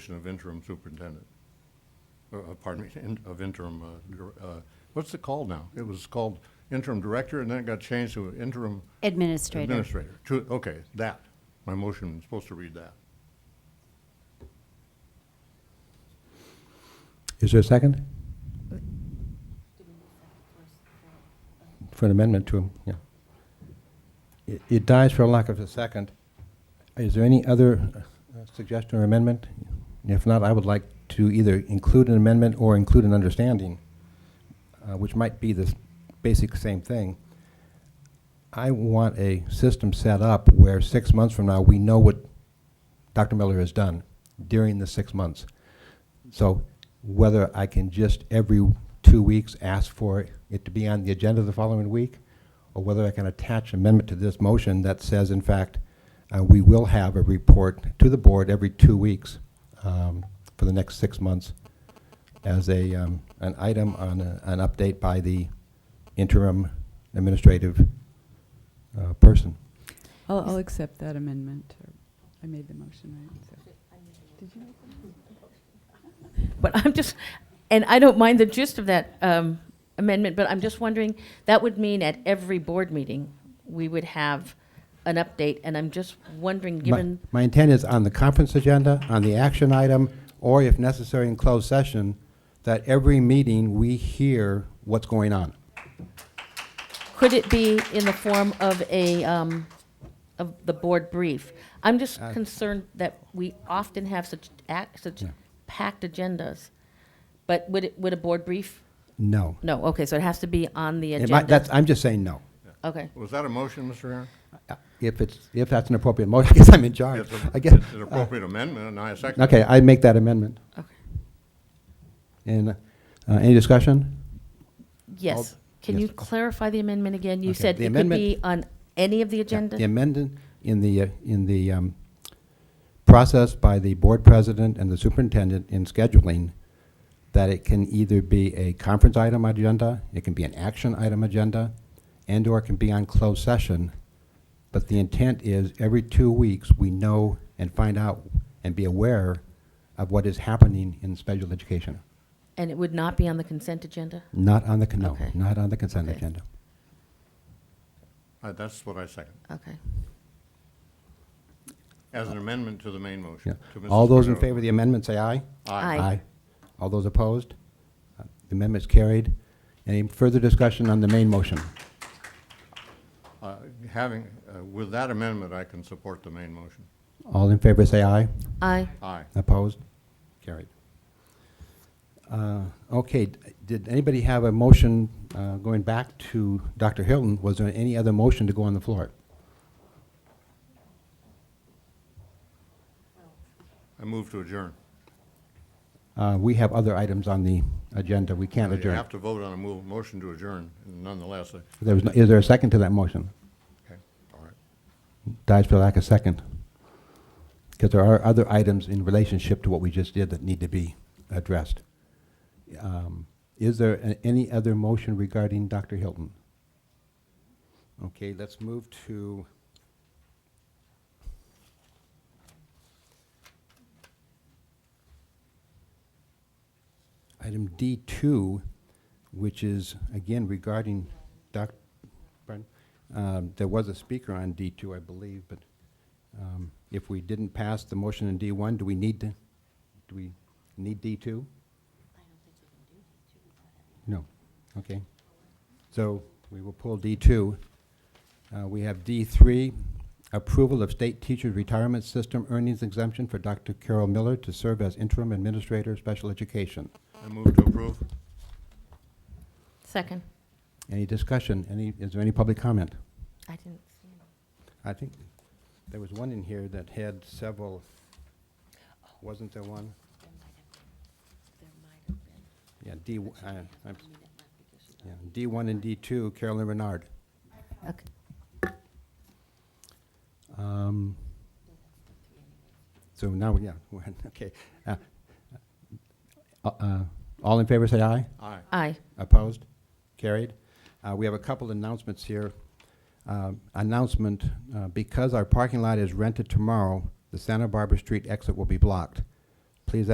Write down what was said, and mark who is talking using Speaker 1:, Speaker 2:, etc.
Speaker 1: of interim superintendent, Uh, uh, pardon me, in- of interim, uh, dir- uh, what's it called now? It was called interim director, and then it got changed to interim
Speaker 2: Administrator.
Speaker 1: administrator. To- Okay, that, my motion is supposed to read that.
Speaker 3: Is there a second? For an amendment to, yeah. It- It dies for lack of a second. Is there any other uh, suggestion or amendment? If not, I would like to either include an amendment or include an understanding, uh, which might be the s- basic same thing. I want a system set up where six months from now, we know what Dr. Miller has done during the six months. So whether I can just every two weeks ask for it to be on the agenda the following week, or whether I can attach amendment to this motion that says, in fact, uh, we will have a report to the board every two weeks um, for the next six months as a, um, an item on a- an update by the interim administrative uh, person.
Speaker 4: I'll, I'll accept that amendment. or- I made the motion, right? so-
Speaker 5: But I'm just, and I don't mind the gist of that um, amendment, but I'm just wondering, that would mean at every board meeting, we would have an update, and I'm just wondering,
Speaker 3: My-
Speaker 5: given,
Speaker 3: My intent is on the conference agenda, on the action item, or if necessary in closed session, that every meeting, we hear what's going on.
Speaker 5: could it be in the form of a, um, of the board brief? I'm just
Speaker 3: Uh,
Speaker 5: concerned that we often have such, ac- such
Speaker 3: Yeah.
Speaker 5: packed agendas, but would, it- would a board brief?
Speaker 3: No.
Speaker 5: No, okay, so it has to be on the
Speaker 3: It might-
Speaker 5: agenda.
Speaker 3: that's- I'm just saying no. Uh,
Speaker 5: Okay,
Speaker 1: Was that a motion, Mr. Aaron?
Speaker 3: If it's, if that's an appropriate motion, I guess I'm in charge.
Speaker 1: It's a-
Speaker 3: I Uh, guess,
Speaker 1: It's an appropriate amendment, and I second. it.
Speaker 3: okay, I make that amendment.
Speaker 5: okay.
Speaker 3: And, uh, any discussion?
Speaker 5: Yes. Can
Speaker 3: yes.
Speaker 5: you clarify the amendment again? You
Speaker 3: Okay,
Speaker 5: said
Speaker 3: the
Speaker 5: it could
Speaker 3: amendment-
Speaker 5: be on any of the agenda?
Speaker 3: The amendment in the, uh, in the um, process by the board president and the superintendent in scheduling, that it can either be a conference item agenda, it can be an action item agenda, and/or it can be on closed session. But the intent is every two weeks, we know and find out and be aware of what is happening in special education.
Speaker 5: And it would not be on the consent agenda?
Speaker 3: Not on the, con- no,
Speaker 5: Okay.
Speaker 3: not on the consent
Speaker 5: Okay.
Speaker 3: agenda.
Speaker 1: Uh, That's what I second,
Speaker 5: Okay.
Speaker 1: as an amendment to the main
Speaker 3: Yeah.
Speaker 1: motion. to Mrs.
Speaker 3: All those in
Speaker 1: Cordova.
Speaker 3: favor of the amendment, say aye.
Speaker 5: Aye.
Speaker 3: All those opposed? Uh, The amendment's carried. Any further discussion on the main motion?
Speaker 1: Uh, Having, uh, with that amendment, I can support the main motion.
Speaker 3: All in favor, say aye.
Speaker 5: Aye.
Speaker 1: Aye.
Speaker 3: Opposed? Carried. Uh, Okay, d- did anybody have a motion uh, going back to Dr. Hilton? Was there any other motion to go on the floor?
Speaker 1: I move to adjourn.
Speaker 3: Uh, We have other items on the agenda. We can't
Speaker 1: Uh, You
Speaker 3: adjourn.
Speaker 1: have to vote on a move, motion to adjourn, nonetheless. I-
Speaker 3: There was no- Is there a second to that motion?
Speaker 1: Okay, all right.
Speaker 3: Dies for lack of second. Because there are other items in relationship to what we just did that need to be addressed. Um, Is there a- any other motion regarding Dr. Hilton? Okay, let's move to... Item D2, which is, again, regarding Doc, pardon? Um, There was a speaker on D2, I believe, but um, if we didn't pass the motion in D1, do we need to, do we need D2? No, okay. So we will pull D2. Uh, We have D3, approval of state teacher retirement system earnings exemption for Dr. Carol Miller to serve as interim administrator of special education.
Speaker 1: I move to approve.
Speaker 5: Second.
Speaker 3: Any discussion? Any, is there any public comment?
Speaker 5: I didn't see it.
Speaker 3: I think there was one in here that had several, wasn't there one? Yeah, D, w- I- I'm, yeah, D1 and D2, Carolyn Renard.
Speaker 5: Okay.
Speaker 3: Um, So now, yeah, we're- okay. Uh, uh, uh, All in favor, say aye.
Speaker 1: Aye.
Speaker 5: Aye.
Speaker 3: Opposed? Carried. Uh, We have a couple announcements here. uh, Um, Announcement, uh, because our parking lot is rented tomorrow, the Santa Barbara Street exit will be blocked.